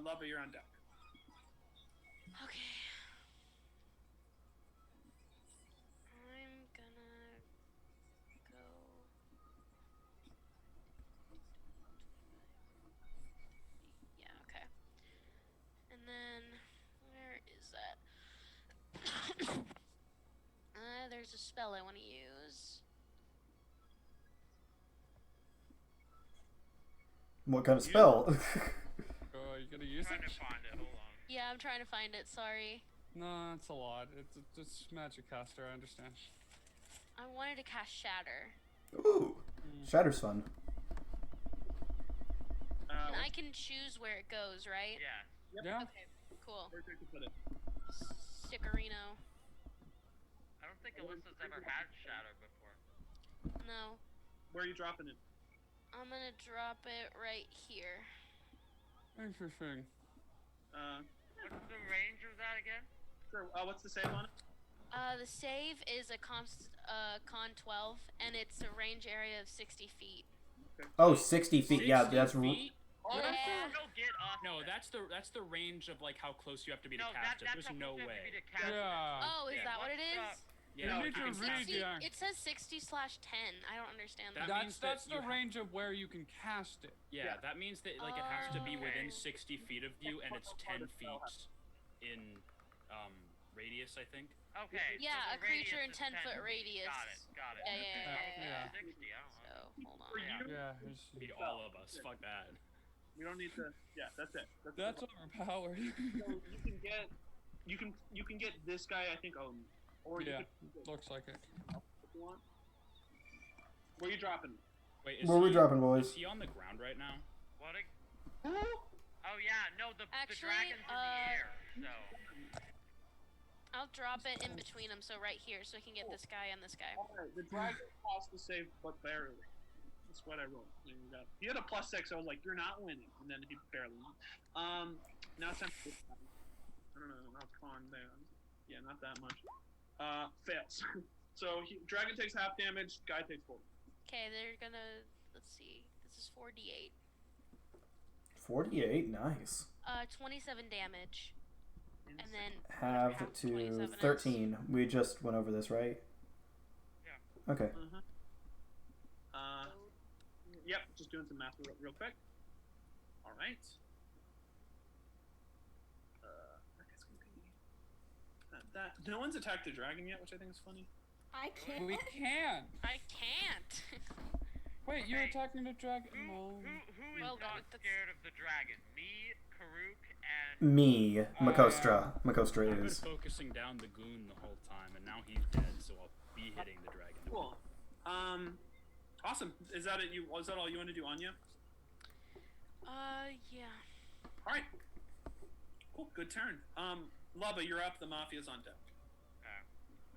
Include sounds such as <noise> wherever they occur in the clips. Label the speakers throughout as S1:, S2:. S1: Lubba, you're on deck.
S2: Okay. I'm gonna go. Yeah, okay. And then, where is that? <coughs> uh, there's a spell I want to use.
S3: What kind of spell?
S4: Oh, you gonna use
S1: Trying
S4: it?
S1: to find it. Hold on.
S2: Yeah, I'm trying to find it, sorry.
S4: No, it's a lot. It's, it's- it's magic caster. I understand.
S2: I wanted to cast Shatter.
S3: <laughs> Ooh, Shatter's fun.
S1: Uh,
S2: And I can choose where it goes, right?
S1: yeah.
S4: Yeah.
S2: Okay, cool.
S1: Where'd you put it?
S2: Stickerino.
S5: I don't think Alyssa's ever had shadow before.
S2: No.
S1: Where are you dropping it?
S2: I'm gonna drop it right here.
S4: Interesting.
S1: Uh,
S5: What's the range of that again?
S1: sure. Uh, what's the save on it?
S2: Uh, the save is a const, uh, con 12, and it's a range area of 60 feet.
S3: Oh, 60 feet. Yeah,
S6: 60
S3: that's. r-
S6: feet?
S5: Oh,
S2: Yeah.
S5: that's- He'll get off.
S6: No,
S5: of it.
S6: that's the that's the range of like how close you have to be to
S5: no, that, that's
S6: cast it.
S5: how
S6: There's no
S5: close you have to be
S6: way.
S5: to cast it.
S4: Yeah.
S2: Oh, is
S6: yeah.
S2: that what it
S5: What's
S2: is?
S6: Yeah,
S1: No, you
S6: you
S1: can
S6: can cast
S4: read
S6: it.
S2: 60,
S4: yeah.
S2: It says 60 slash 10. I don't understand
S6: That
S2: that.
S4: that's
S6: means that
S4: that's
S6: you
S4: the
S6: have-
S4: range of where you can cast it.
S6: Yeah,
S1: Yeah.
S6: that means that like it has to be
S2: Oh.
S6: within 60 feet of you, and it's 10
S1: Okay.
S6: feet in um, radius, I think.
S5: Okay. so
S2: Yeah,
S5: the
S2: a creature in
S5: radius is
S2: 10 foot
S5: feet.
S2: radius.
S5: Got it. Got it.
S2: Yeah, yeah, yeah,
S5: Okay,
S2: yeah,
S4: yeah.
S5: 60, I don't know.
S2: So, hold
S1: For
S2: on.
S1: you?
S4: Yeah.
S6: Be all of us. Fuck that.
S1: We don't need to. Yeah, that's it. That's,
S4: That's
S1: it.
S4: overpowered. <laughs>
S1: So you can get. You can you can get this guy. I think. Um. Or you
S4: yeah.
S1: could-
S4: Looks like it.
S1: if you want. Where you dropping? it?
S6: Wait, is
S3: Where we
S6: he-
S3: dropping,
S6: Is
S3: boys?
S6: he on the ground right now?
S5: What a... Oh yeah, no, the,
S2: Actually,
S5: the dragon's in the
S2: uh,
S5: air, so...
S2: I'll drop it in between them, so right here, so I can get this guy and this guy.
S1: All right. The dragon cost to save, but barely. That's what I rolled. There you go. He had a plus six. I was like, you're not winning, and then he barely. Won. Um. Now it's time. For this guy. I don't know. I'll con there. Yeah, not that much. Uh, fails. <laughs> so he, dragon takes half damage. Guy takes four.
S2: Okay, they're gonna. Let's see. This is 4d8.
S3: 48. Nice.
S2: Uh, 27 damage. And then. whatever
S3: Have
S2: half
S3: to
S2: 27 is.
S3: 13. We just went over this, right? Yeah. Okay.
S1: Uh, yep, just doing some math real, real quick. All right. Uh, I guess we can- that, that- no one's attacked the dragon yet, which I think is funny.
S7: I can't.
S4: We can.
S2: I can't! <laughs>
S4: Wait, you're
S5: Hey.
S4: attacking the dragon.
S5: Who,
S4: No.
S5: who, who is
S2: Well,
S5: not
S2: that- that's-
S5: scared of the dragon? Me, Karuk, and...
S3: Me, Makostra. Makostra
S6: I've been
S3: is.
S6: focusing down the goon the whole time, and now he's dead, so I'll be hitting the dragon.
S1: Cool. Um, awesome. Is that it? You is that all you want to do, Anya?
S2: Uh, yeah.
S1: All right. Cool. Good turn. Um, Lubba, you're up. The mafia's on deck.
S5: Uh,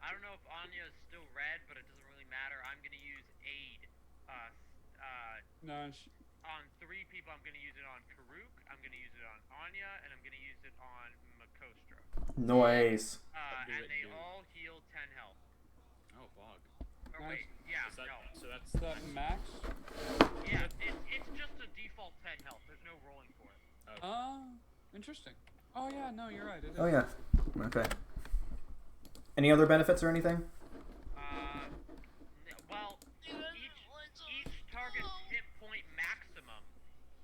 S5: I don't know if Anya is still red, but it doesn't really matter. I'm gonna use aid. Uh, s- uh,
S4: Nice.
S5: on three people, I'm gonna use it on Karuk, I'm gonna use it on Anya, and I'm gonna use it on Makostra.
S3: Noise.
S5: Uh,
S6: Do
S5: and
S6: it,
S5: they
S6: dude.
S5: all heal 10 health.
S6: Oh, bog.
S5: Or
S4: Nice.
S5: wait, yeah,
S6: Is that,
S5: no.
S6: So that's
S4: Is that max?
S5: Yeah, it, it's just a default 10 health. There's no rolling for it.
S4: Oh, interesting. Oh yeah, no, you're right. It is.
S3: Oh, yeah. Okay. Any other benefits or anything?
S5: Uh, n- well, each, each target's hit point maximum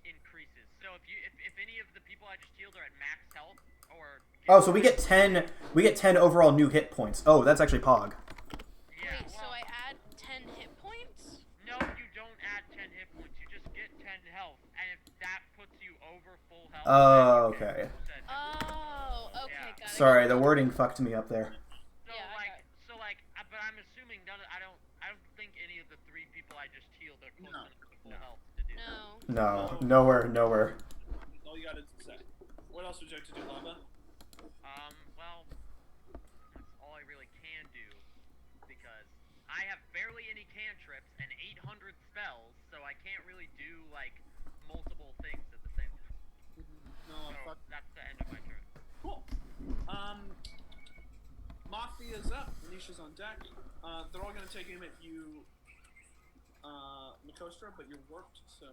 S5: increases. So if you if, if any of the people I just healed are at max health or
S3: Oh, so we get 10. We get 10 overall new hit points. Oh, that's actually Pog.
S5: yeah,
S2: Wait, so
S5: well,
S2: I add 10 hit points?
S5: no, you don't add 10 hit points. You just get 10 health, and if that puts you over full health. then
S3: Oh,
S5: you get
S3: okay.
S5: full 10 hit
S2: Oh, okay,
S5: Yeah.
S2: got it.
S3: Sorry, the wording fucked me up there.
S5: So
S2: Yeah, I
S5: like,
S2: got
S5: so like, uh, but I'm assuming none. Of, I don't. I don't think any of the three people I just healed are close
S1: No.
S5: enough to full health to do. that.
S2: No.
S3: No, nowhere, nowhere.
S1: That's all you got to say. What else would you like to do, Lubba?
S5: Um. Well, that's all I really can do because I have barely any cantrips and 800 spells, so I can't really do like multiple things at the same time.
S1: No,
S5: So
S1: Oh, fuck.
S5: that's the end of my turn.
S1: Cool. Um, Mafia's up. Nisha's on deck. Uh, they're all going to take aim at you, uh, Makostra, but you're warped, so.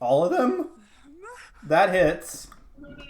S3: All of them? That hits.
S1: No, no, no,